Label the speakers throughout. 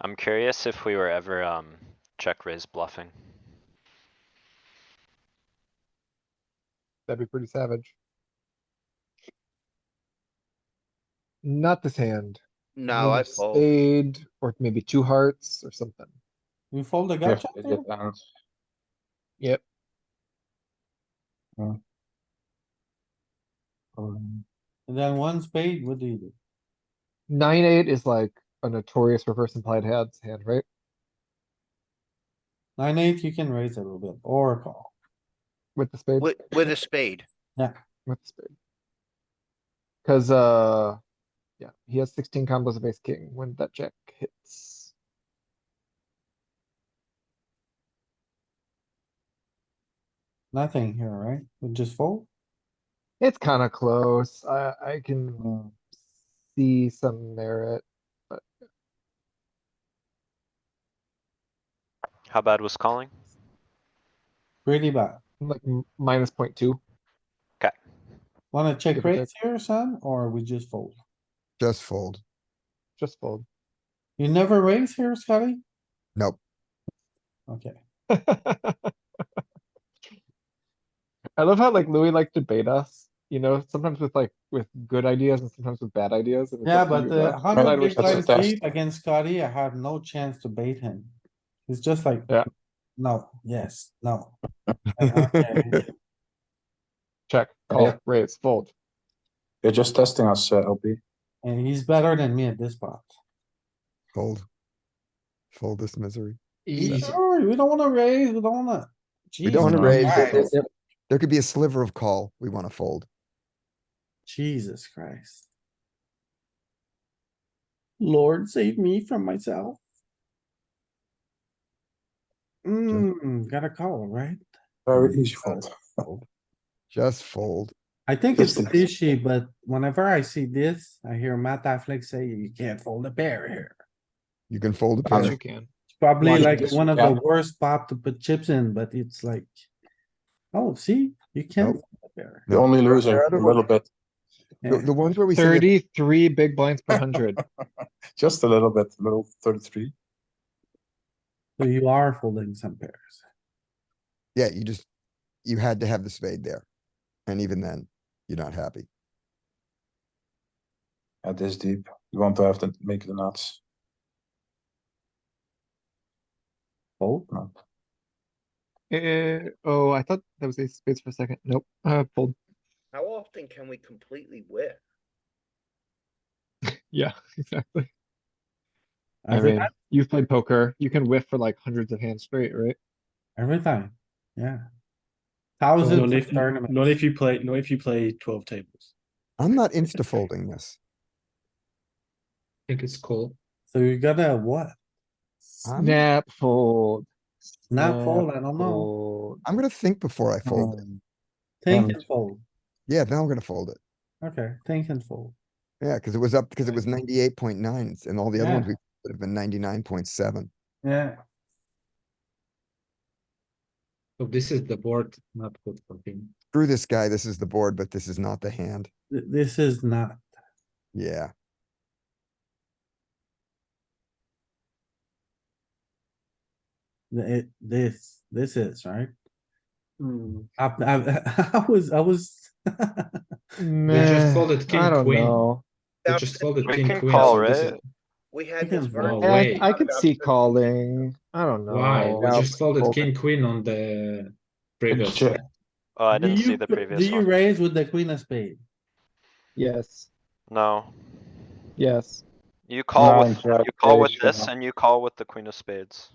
Speaker 1: I'm curious if we were ever, um, check raise bluffing.
Speaker 2: That'd be pretty savage. Not this hand.
Speaker 3: No, I
Speaker 2: Maybe
Speaker 3: fold.
Speaker 2: Spade, or maybe two hearts or something.
Speaker 4: You fold the gut
Speaker 5: Def-
Speaker 4: check there?
Speaker 5: def- out.
Speaker 2: Yep.
Speaker 5: Um,
Speaker 4: And then one spade, what do you do?
Speaker 2: Nine, eight is like a notorious reverse implied hands hand, right?
Speaker 4: Nine, eight, you can raise a little bit or call.
Speaker 2: With the spade,
Speaker 3: With, with a spade.
Speaker 2: with the spade. Cuz, uh, yeah, he has sixteen combos of ace king when that jack hits.
Speaker 4: Nothing here, right? We just fold?
Speaker 2: It's kinda close. I, I can
Speaker 6: Mm.
Speaker 5: uh,
Speaker 2: see some merit.
Speaker 1: How bad was calling?
Speaker 4: Pretty bad.
Speaker 2: Like m- minus point two.
Speaker 4: Wanna check
Speaker 2: Give or
Speaker 4: raise here, son, or we just fold?
Speaker 6: Just fold.
Speaker 2: Just fold.
Speaker 4: You never raise here, Scotty?
Speaker 6: Nope.
Speaker 4: Okay,
Speaker 2: I love how like Louis like debate us, you know, sometimes with like with good ideas and sometimes with bad ideas. and it's
Speaker 4: yeah,
Speaker 2: up to
Speaker 4: but
Speaker 2: you,
Speaker 4: the
Speaker 2: right? Right,
Speaker 4: hundred
Speaker 2: which
Speaker 4: big
Speaker 2: is
Speaker 5: that's
Speaker 4: blind
Speaker 5: a test.
Speaker 4: lead against Scotty, I have no chance to bait him. It's just like.
Speaker 2: Yeah.
Speaker 4: No, yes, no. Okay,
Speaker 2: Check, call, raise, fold.
Speaker 5: You're just testing us, uh, LP.
Speaker 4: And he's better than me at this spot.
Speaker 6: Fold. Fold this misery.
Speaker 4: Sure, we don't wanna raise, we don't wanna.
Speaker 6: We don't wanna
Speaker 5: Jesus
Speaker 6: raise.
Speaker 4: Christ.
Speaker 6: but there- there- There could be a sliver of call. We wanna fold.
Speaker 4: Jesus Christ. Lord, save me from myself. Mm, got a call, right?
Speaker 5: Very easy fold.
Speaker 6: Just fold.
Speaker 4: I think it's
Speaker 5: Just the-
Speaker 4: fishy, but whenever I see this, I hear Matt Affleck say you can't fold a pair here.
Speaker 6: You can fold a
Speaker 2: Yes, you
Speaker 6: pair.
Speaker 2: can.
Speaker 4: It's probably
Speaker 5: Watch
Speaker 4: like
Speaker 5: this,
Speaker 4: one of the
Speaker 5: yeah.
Speaker 4: worst pop to put chips in, but it's like. Oh, see, you can't.
Speaker 6: Nope.
Speaker 4: fold a pair.
Speaker 5: The only loser, a little bit,
Speaker 6: The, the ones where we say, that-
Speaker 2: Thirty-three big blinds per hundred.
Speaker 5: just a little bit, little thirty-three.
Speaker 4: So you are folding some pairs.
Speaker 6: yeah, you just, you had to have the spade there. And even then, you're not happy.
Speaker 5: At this deep, you want to have to make the nuts.
Speaker 4: Fold,
Speaker 5: No.
Speaker 2: Eh, oh, I thought that was ace of spades for a second. Nope, uh, fold.
Speaker 3: How often can we completely whip?
Speaker 2: Yeah, exactly. I
Speaker 4: every
Speaker 2: mean,
Speaker 4: time,
Speaker 2: you've played poker. You can whiff for like hundreds of hands straight, right?
Speaker 4: every time, yeah. Thousands
Speaker 7: Not
Speaker 4: of
Speaker 7: if,
Speaker 4: tournaments.
Speaker 7: not if you play, not if you play twelve tables.
Speaker 6: I'm not insta folding this.
Speaker 8: think it's cool.
Speaker 4: So you gotta what?
Speaker 6: I'm-
Speaker 2: Snap fold.
Speaker 4: Not
Speaker 2: snap,
Speaker 4: fold, I don't know.
Speaker 2: fold.
Speaker 6: I'm gonna think before I fold it.
Speaker 4: Think
Speaker 5: Um,
Speaker 4: and fold.
Speaker 6: Yeah, then I'm gonna fold it.
Speaker 4: Okay, think and fold.
Speaker 6: Yeah, cuz it was up, cuz it was ninety-eight point nine and all the other
Speaker 4: Yeah.
Speaker 6: ones we would have been ninety-nine point seven.
Speaker 4: Yeah.
Speaker 8: So this is the board, not good for him.
Speaker 6: Screw this guy. This is the board, but this is not the hand.
Speaker 4: Th- This is not,
Speaker 6: Yeah,
Speaker 4: th- it, this, this is, right? I, I, I was, I was.
Speaker 1: Oh,
Speaker 8: just folded
Speaker 2: Nah,
Speaker 8: king,
Speaker 2: I don't
Speaker 8: queen.
Speaker 2: know.
Speaker 8: They
Speaker 3: Now,
Speaker 8: just folded
Speaker 1: We
Speaker 8: king
Speaker 1: can
Speaker 8: queen,
Speaker 1: call,
Speaker 8: so this is-
Speaker 1: right?
Speaker 3: We had
Speaker 4: Because-
Speaker 3: this. very
Speaker 8: No
Speaker 2: Yeah, I,
Speaker 3: good
Speaker 2: I
Speaker 3: talk
Speaker 2: could
Speaker 3: about
Speaker 2: see
Speaker 3: this.
Speaker 2: calling. I don't know.
Speaker 8: Why? We
Speaker 2: Now,
Speaker 8: just folded
Speaker 2: fold
Speaker 8: king, queen on the previous.
Speaker 5: Check.
Speaker 1: Oh, I
Speaker 4: Do
Speaker 1: didn't see
Speaker 4: you
Speaker 1: the
Speaker 4: pr-
Speaker 1: previous
Speaker 4: Do you
Speaker 1: one.
Speaker 4: raise with the queen of spade?
Speaker 2: Yes,
Speaker 1: No.
Speaker 2: yes.
Speaker 1: You call
Speaker 5: Nine,
Speaker 1: with,
Speaker 5: jack,
Speaker 1: you call with
Speaker 5: ace,
Speaker 1: this
Speaker 5: jack.
Speaker 1: and you call with the queen of spades.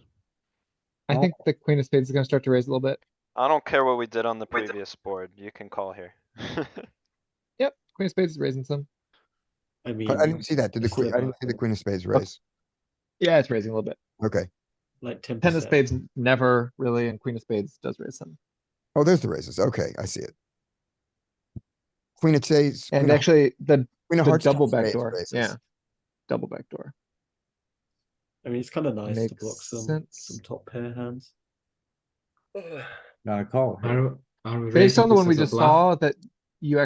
Speaker 2: I think the queen of spades is gonna start to raise a little bit.
Speaker 1: I don't care what we did on the
Speaker 3: With the-
Speaker 1: previous board. You can call here.
Speaker 2: Yep, queen of spades is raising some.
Speaker 7: I mean,
Speaker 6: but I didn't see that. Did the
Speaker 7: it's
Speaker 6: queen,
Speaker 7: still
Speaker 6: I didn't
Speaker 7: not
Speaker 6: see the
Speaker 7: good.
Speaker 6: queen of spades raise.
Speaker 2: Yeah, it's raising a little bit.
Speaker 6: Okay.
Speaker 7: like ten
Speaker 2: Ten of spades never really, and queen of spades does raise some.
Speaker 6: Oh, there's the raises. Okay, I see it. Queen of spades. queen
Speaker 2: And
Speaker 6: of-
Speaker 2: actually, the,
Speaker 6: queen of
Speaker 2: the
Speaker 6: hearts,
Speaker 2: double
Speaker 6: jack of spades
Speaker 2: backdoor,
Speaker 6: raises.
Speaker 2: yeah. Double backdoor.
Speaker 7: I mean, it's kind of nice to
Speaker 2: Makes
Speaker 7: block some
Speaker 2: sense.
Speaker 7: some top pair hands.
Speaker 3: Ugh.
Speaker 4: Gotta call.
Speaker 8: Are, are we
Speaker 2: Based
Speaker 8: raising
Speaker 2: on the
Speaker 8: this
Speaker 2: one we
Speaker 8: as a
Speaker 2: just
Speaker 8: bluff?
Speaker 2: saw, that